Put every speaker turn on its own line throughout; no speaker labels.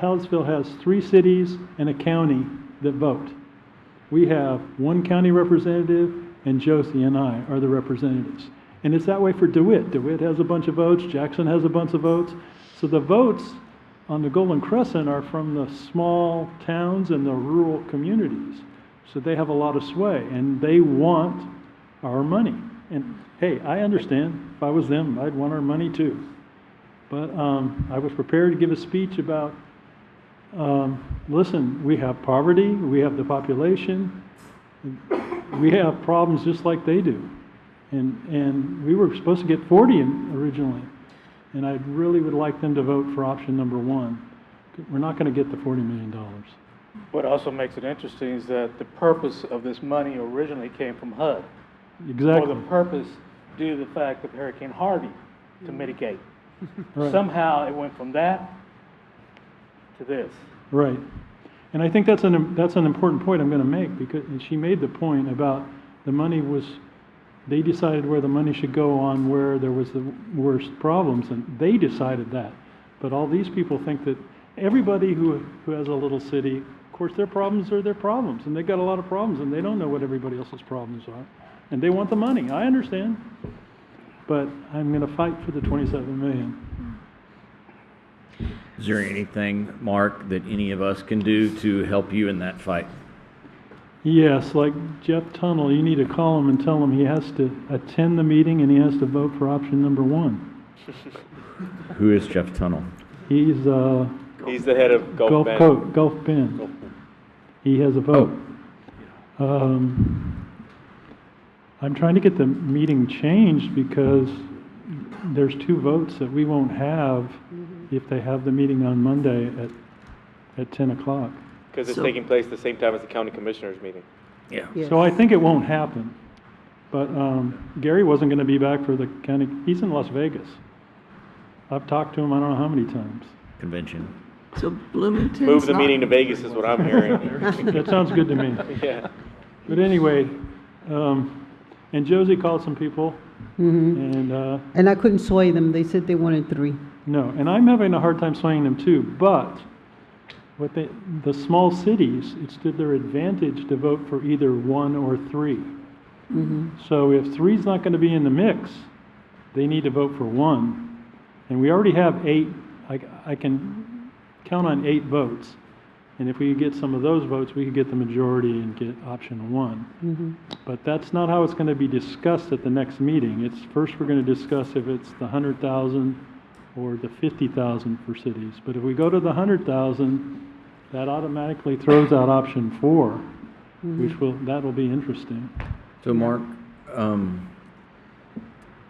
Hallsville has three cities and a county that vote. We have one county representative, and Josie and I are the representatives. And it's that way for DeWitt. DeWitt has a bunch of votes, Jackson has a bunch of votes. So the votes on the Golden Crescent are from the small towns and the rural communities. So they have a lot of sway, and they want our money. And hey, I understand, if I was them, I'd want our money too. But um, I was prepared to give a speech about, um, listen, we have poverty, we have the population, we have problems just like they do. And, and we were supposed to get 40 in- originally. And I really would like them to vote for option number one. We're not going to get the $40 million.
What also makes it interesting is that the purpose of this money originally came from HUD. For
Exactly.
the purpose due to the fact of Hurricane Harvey to mitigate.
Right.
Somehow it went from that to this.
Right. And I think that's an, that's an important point I'm going to make because, and she made the point about the money was, they decided where the money should go on where there was the worst problems and they decided that. But all these people think that everybody who, who has a little city, of course, their problems are their problems and they've got a lot of problems and they don't know what everybody else's problems are. And they want the money. I understand. But I'm going to fight for the 27 million.
Is there anything, Mark, that any of us can do to help you in that fight?
Yes, like Jeff Tunnel, you need to call him and tell him he has to attend the meeting and he has to vote for option number one.
Who is Jeff Tunnel?
He's uh,
He's the head of Gulf,
Gulf
Bend.
Coast, Gulf Bend. He has a vote. Um, I'm trying to get the meeting changed because there's two votes that we won't have if they have the meeting on Monday at, at 10 o'clock.
Because it's taking place the same time as the county commissioners meeting.
Yeah.
So I think it won't happen. But um, Gary wasn't going to be back for the county, he's in Las Vegas. I've talked to him, I don't know how many times.
Convention.
So Bloomington's
Move the
not-
meeting to Vegas is what I'm hearing.
That sounds good to me.
yeah.
But anyway, um, and Josie called some people, and, uh,
Mm-hmm. And I couldn't sway them. They said they wanted three.
no, and I'm having a hard time swaying them too, but what they, the small cities, it's to their advantage to vote for either one or three. So if three's not going to be in the mix, they need to vote for one. And we already have eight, I, I can count on eight votes. And if we could get some of those votes, we could get the majority and get option one. But that's not how it's going to be discussed at the next meeting. It's, first, we're going to discuss if it's the hundred thousand or the fifty thousand for cities. But if we go to the hundred thousand, that automatically throws out option four, which will, that'll be interesting.
So, Mark, um,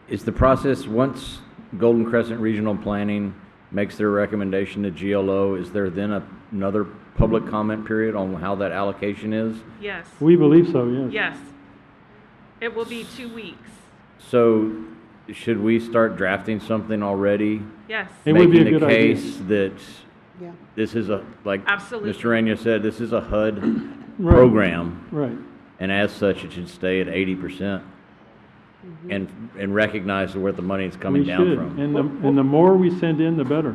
is the process, once Golden Crescent Regional Planning makes their recommendation to GLO, is there then a- another public comment period on how that allocation is?
Yes,
We believe so, yes.
yes. It will be two weeks.
So, should we start drafting something already?
Yes,
It would be a good idea.
Making the case that
Yeah.
this is a, like
Absolutely.
Mr. Rania said, this is a HUD
Right.
program,
Right,
and as such, it should stay at eighty percent and, and recognize where the money is
we
coming down
should.
from.
And the, and the more we send in, the better.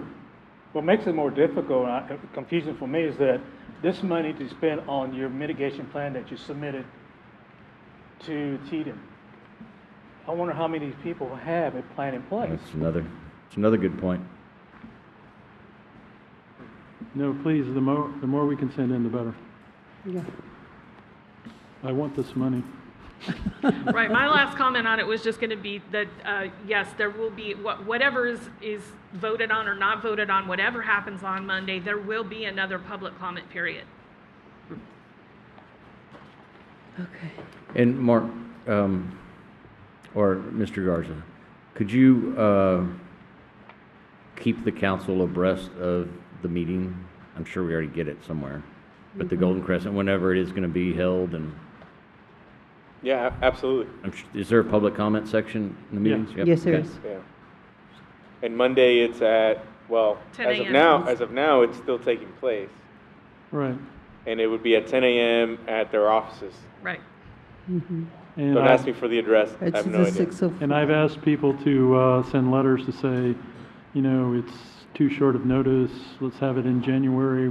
What makes it more difficult, and I- confusing for me, is that this money to spend on your mitigation plan that you submitted to TDM. I wonder how many people have a plan in place?
That's another, that's another good point.
No, please, the more, the more we can send in, the better. I want this money.
right. My last comment on it was just going to be that, uh, yes, there will be, wha- whatever is, is voted on or not voted on, whatever happens on Monday, there will be another public comment period.
And Mark, um, or Mr. Garza, could you, uh, keep the council abreast of the meeting? I'm sure we already get it somewhere, but the Golden Crescent, whenever it is gonna be held and.
Yeah, a- absolutely.
I'm sh- Is there a public comment section in the
Yeah.
meetings? Yep,
Yes, there
okay.
is.
Yeah. And Monday it's at, well,
10
as of
a.m..
now, as of now, it's still taking place.
Right.
And it would be at 10 a.m. at their offices.
Right.
And
Don't
I,
ask me for the address. I
It's
have no
the
idea.
six of,
and I've asked people to, uh, send letters to say, you know, it's too short of notice. Let's have it in January